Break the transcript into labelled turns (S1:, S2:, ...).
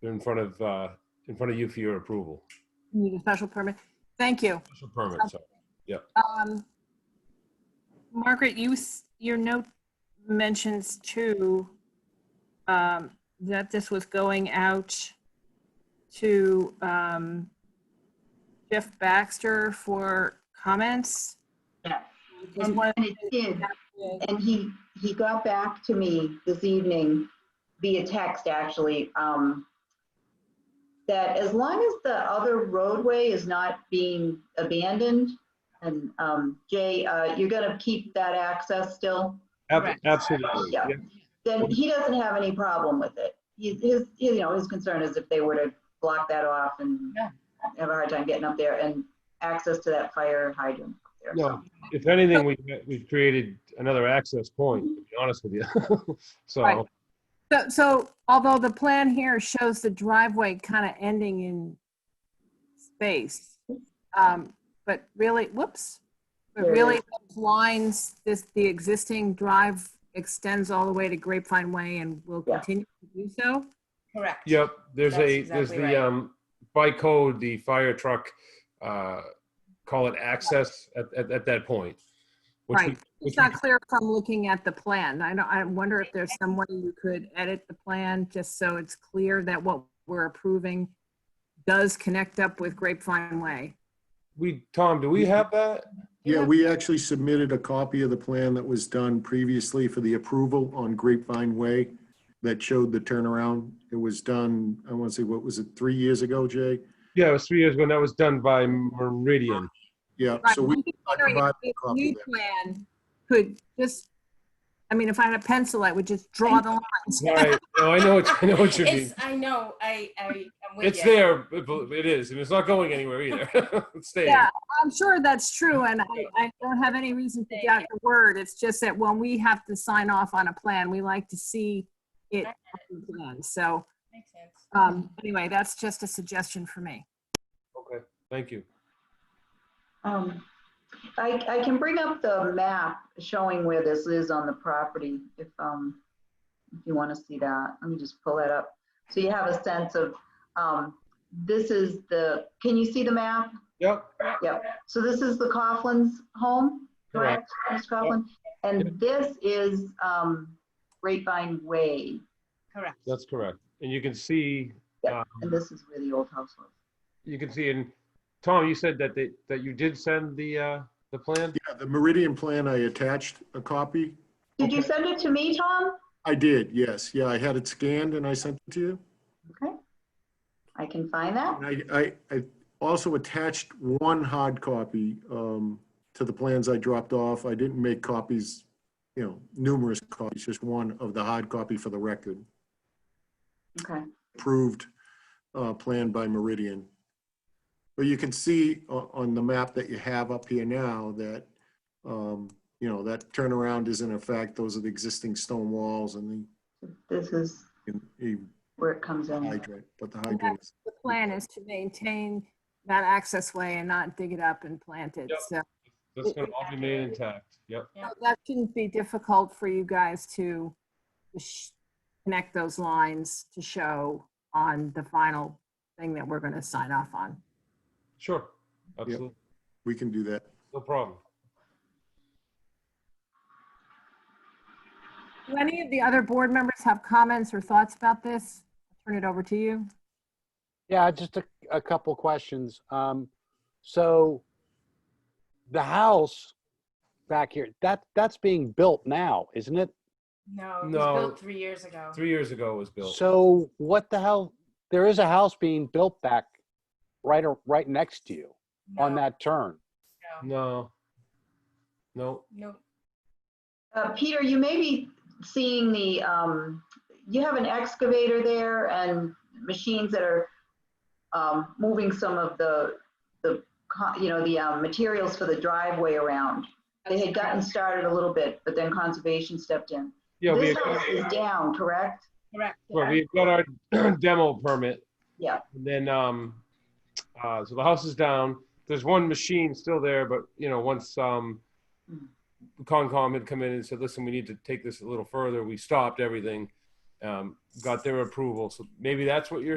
S1: They're in front of, uh, in front of you for your approval.
S2: Need a special permit. Thank you.
S1: Special permit, so.
S2: Um, Margaret, you, s- your note mentions too, um, that this was going out to, um, Jeff Baxter for comments.
S3: Yeah.
S2: Just
S3: And
S2: wanted
S3: and it did,
S2: to-
S3: and he, he got back to me this evening via text, actually, um, that as long as the other roadway is not being abandoned, and, um, Jay, uh, you're gonna keep that access still?
S1: Ab- Absolutely.
S3: Yeah. then he doesn't have any problem with it. He, his, you know, his concern is if they were to block that off and
S4: Yeah.
S3: have a hard time getting up there and access to that fire hydrant. up there.
S1: No, if anything, we, we've created another access point, to be honest with you.
S2: Right.
S1: So,
S2: So, so although the plan here shows the driveway kind of ending in space, um, but really, whoops, but
S3: There it
S2: really
S3: is.
S2: those lines, this, the existing drive extends all the way to Grapevine Way and will
S3: Yeah.
S2: continue to do so.
S4: Correct.
S1: yep, there's
S4: That's
S1: a, there's
S4: exactly
S1: the,
S4: right.
S1: um, by code, the fire truck, uh, call it access at, at, at that point. which we-
S2: Right.
S1: which
S2: It's
S1: we
S2: not clear from looking at the plan. I don't, I wonder if there's some way you could edit the plan just so it's clear that what we're approving does connect up with Grapevine Way.
S1: We, Tom, do we have that?
S5: Yeah, we actually submitted a copy of the plan that was done previously for the approval on Grapevine Way that showed the turnaround. It was done, I want to say, what was it, three years ago, Jay?
S1: Yeah, it was three years ago, and that was done by Meridian.
S5: Yeah,
S2: Right,
S5: so we
S2: I'm just wondering if
S5: provide
S2: the
S5: a copy
S2: New
S5: of that.
S2: plan could just, I mean, if I had a pencil, I would just draw the lines.
S1: Right, no, I know, what- I know what you mean.
S4: It's, I know, I, I, I'm with
S1: It's
S4: you.
S1: there, but- but it is, and it's not going anywhere either. It's staying.
S2: Yeah, I'm sure that's true, and I, I don't have any reason to doubt your word. It's just that when we have to sign off on a plan, we like to see it. on the plan. So,
S4: Makes sense.
S2: um, anyway, that's just a suggestion for me.
S1: Okay, thank you.
S3: Um, I, I can bring up the map showing where this is on the property if, um, if you want to see that. Let me just pull that up. So you have a sense of, um, this is the, can you see the map?
S1: Yep,
S3: Yep. So this is the Coughlin's home, correct, Mr. Coughlin? And this is um, Grapevine Way,
S4: Correct.
S1: that's correct. And you can see,
S3: Yep.
S1: um,
S3: and this is where the old house was.
S1: you can see in, Tom, you said that they, that you did send the, uh, the plan?
S5: Yeah, the Meridian plan, I attached a copy.
S3: Did you send it to me, Tom?
S5: I did, yes. Yeah, I had it scanned and I sent it to you.
S3: Okay. I can find that.
S5: And I, I, I also attached one hard copy um, to the plans I dropped off. I didn't make copies, you know, numerous copies, just one of the hard copy for the record.
S3: Okay.
S5: approved uh, plan by Meridian. But you can see o- on the map that you have up here now that, um, you know, that turnaround is in effect. Those are the existing stone walls and
S3: This is
S5: the and the
S3: where it comes in.
S5: hydrant, but the hydrant is.
S2: The plan is to maintain that access way and not dig it up and plant it,
S1: Yep.
S2: so.
S1: That's gonna all be made intact, yep.
S2: So That shouldn't be difficult for you guys to sh- connect those lines to show on the final thing that we're going to sign off on.
S1: Sure, absolutely,
S5: We can do that.
S1: no problem.
S2: Do any of the other board members have comments or thoughts about this? I'll Turn it over to you.
S6: Yeah, just a, a couple questions. Um, so the house back here, that, that's being built now, isn't it?
S4: No, it was
S1: No.
S4: built three years ago.
S1: Three years ago it was built.
S6: So what the hell, there is a house being built back right, or right next to you on
S4: No,
S6: that turn.
S4: No,
S1: No. No,
S4: no,
S3: Uh, Peter, you may be seeing the, um, you have an excavator there and machines that are um, moving some of the, the, co- you know, the um, materials for the driveway around. They had gotten started a little bit, but then conservation stepped in.
S1: yeah, we,
S3: This house is down, correct?
S4: correct.
S1: well, we got our demo permit
S3: Yeah,
S1: And then, um, uh, so the house is down. There's one machine still there, but you know, once um, Concom had come in and said, "Listen, we need to take this a little further," we stopped everything, um, got their approval. So maybe that's what you're